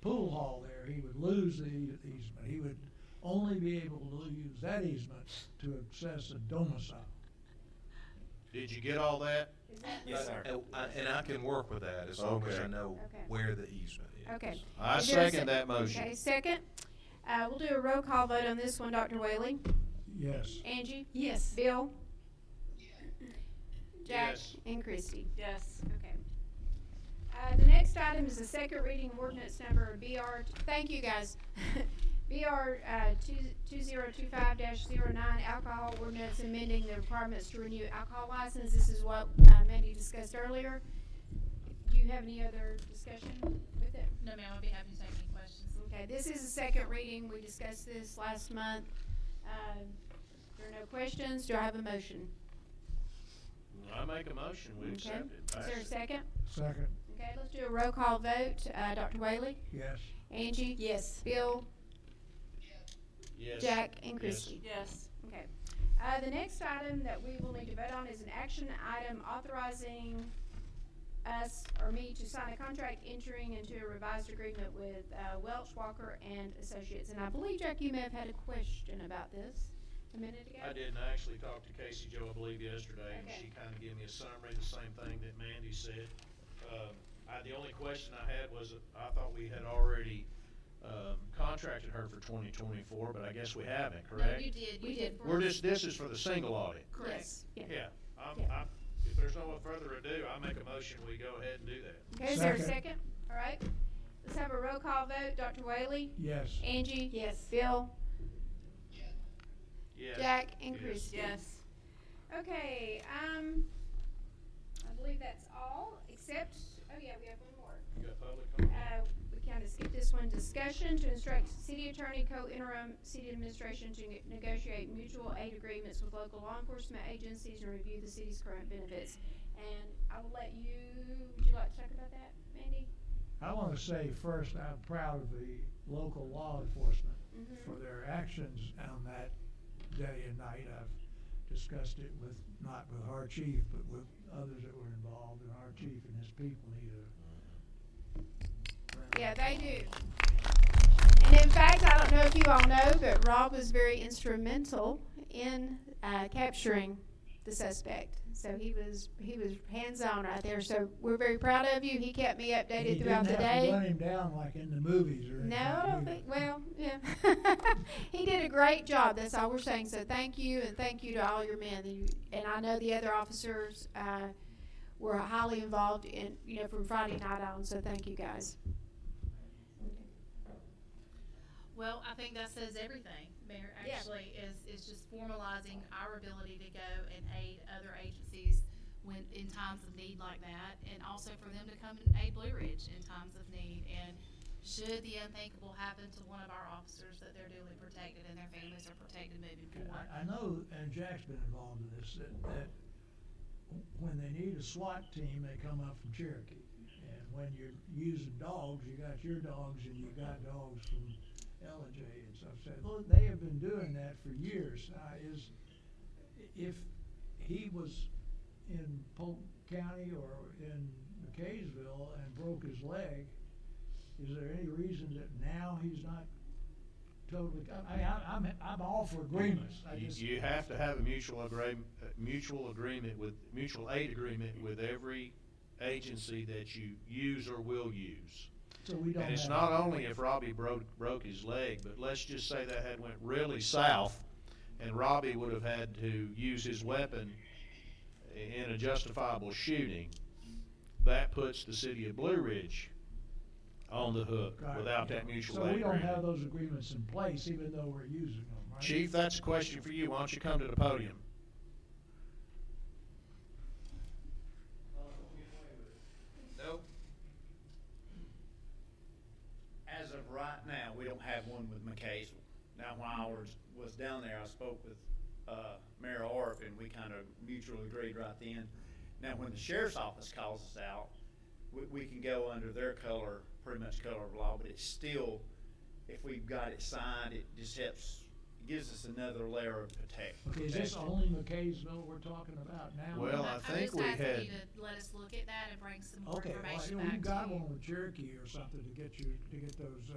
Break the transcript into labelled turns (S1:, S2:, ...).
S1: pool hall there, he would lose the easement. He would only be able to use that easement to access a domicile.
S2: Did you get all that?
S3: Is that
S4: Yes,
S3: right?
S4: sir.
S5: And I- and I can work with that as long as I
S2: Okay.
S5: know
S3: Okay.
S5: where the easement is.
S3: Okay.
S2: I
S3: Is there a
S2: second that motion.
S3: Okay, second. Uh, we'll do a roll call vote on this one, Dr. Whaley.
S1: Yes.
S3: Angie?
S6: Yes.
S3: Bill? Jack?
S2: Yes.
S3: And Christie?
S6: Yes.
S3: Okay. Uh, the next item is the second reading of ordinance number BR, thank you guys. BR, uh, two, two zero two five dash zero nine alcohol ordinance amending the requirements to renew alcohol license. This is what, uh, Mandy discussed earlier. Do you have any other discussion with it?
S6: No, ma'am, I'll be happy to take any questions.
S3: Okay, this is the second reading. We discussed this last month. Uh, there are no questions. Do I have a motion?
S2: I make a motion, we
S3: Okay.
S2: accept it.
S3: Is
S2: Pass
S3: there a
S2: it.
S3: second?
S1: Second,
S3: Okay, let's do a roll call vote. Uh, Dr. Whaley,
S1: yes.
S3: Angie,
S6: Yes.
S3: Bill,
S2: Yes.
S3: Jack, and
S2: Yes.
S3: Christie.
S6: Yes.
S3: Okay. Uh, the next item that we will need to vote on is an action item authorizing us or me to sign a contract entering into a revised agreement with uh, Welch Walker and Associates. And I believe, Jack, you may have had a question about this a minute ago.
S2: I did, and I actually talked to Casey Joe, I believe, yesterday, and
S3: Okay.
S2: she kinda gave me a summary, of the same thing that Mandy said. Um, I, the only question I had was, I thought we had already, um, contracted her for twenty twenty-four, but I guess we haven't,
S6: No,
S2: correct?
S6: you did.
S3: We
S6: You
S3: did.
S6: did.
S2: We're just, this is for the single audit.
S6: Correct.
S3: Yeah.
S2: Yeah, I'm,
S3: Yeah.
S2: I'm, if there's no further ado, I make a motion, we go ahead and do that.
S3: Okay, is there a
S1: Second.
S3: second? All right. Let's have a roll call vote. Dr. Whaley,
S1: Yes.
S3: Angie. Yes. Bill,
S2: Yes.
S3: Jack, and
S2: Yes.
S3: Christie.
S6: Yes.
S3: Okay, um, I believe that's all, except, oh yeah, we have one more.
S2: You got public comment?
S3: Uh, we kind of skipped this one, discussion to instruct city attorney, co-interim city administration to neg- negotiate mutual aid agreements with local law enforcement agencies and review the city's current benefits. And I will let you, would you like to talk about that, Mandy?
S1: I want to say first, I'm proud of the local law enforcement
S3: Mhm.
S1: for their actions on that day and night. I've discussed it with, not with our chief, but with others that were involved, and our chief and his people, he uh,
S3: Yeah, they do. And in fact, I don't know if you all know, but Rob was very instrumental in uh, capturing the suspect. So he was he was hands on right there. So we're very proud of you. He kept me updated
S1: He
S3: throughout
S1: didn't
S3: the
S1: have to
S3: day.
S1: Run him down like in the movies or anything.
S3: No, I don't
S1: either.
S3: think, well, yeah. he did a great job. That's all we're saying. So thank you, and thank you to all your men. And, you, and I know the other officers uh, were highly involved in, you know, from Friday night on. So thank you guys.
S6: Well, I think that says everything, Mayor,
S3: Yeah.
S6: actually, is, is just formalizing our ability to go and aid other agencies when, in times of need like that, and also for them to come and aid Blue Ridge in times of need. And should the unthinkable happen to one of our officers, that they're duly protected and their families are protected moving forward.
S1: I, I know, and Jack's been involved in this, that, that when they need a SWAT team, they come up from Cherokee. And when you're using dogs, you got your dogs and you got dogs from LJ and stuff. So well, they have been doing that for years. Now, is, if he was in Polk County or in McKaysville and broke his leg, is there any reason that now he's not totally, I, I, I'm, I'm all for agreements. I
S2: You,
S1: just-
S2: you have to have a mutual agreement, mutual agreement with, mutual aid agreement with every agency that you use or will use.
S1: So we don't
S2: And it's
S1: have-
S2: not only if Robbie broke, broke his leg, but let's just say that had went really south and Robbie would have had to use his weapon i- in a justifiable shooting. That puts the city of Blue Ridge on the hook
S1: Right.
S2: without that mutual
S1: So
S2: aid
S1: we don't
S2: agreement.
S1: have those agreements in place, even though we're using them, right?
S2: Chief, that's a question for you. Why don't you come to the podium?
S4: Nope.
S7: As of right now, we don't have one with McCaysville. Now, when I was, was down there, I spoke with, uh, Mayor Orp, and we kind of mutually agreed right then. Now, when the sheriff's office calls us out, we, we can go under their color, pretty much color of law, but it's still, if we've got it signed, it just helps gives us another layer of protect.
S1: Okay, is this
S7: protection.
S1: only McKaysville we're talking about now?
S2: Well, I
S6: I'm
S2: think
S6: just
S2: we
S6: asking
S2: had-
S6: you to Let us look at that and bring some more
S1: Okay, well, you
S6: information
S1: know,
S6: back to you.
S1: you got one with Cherokee or something to get you, to get those, uh,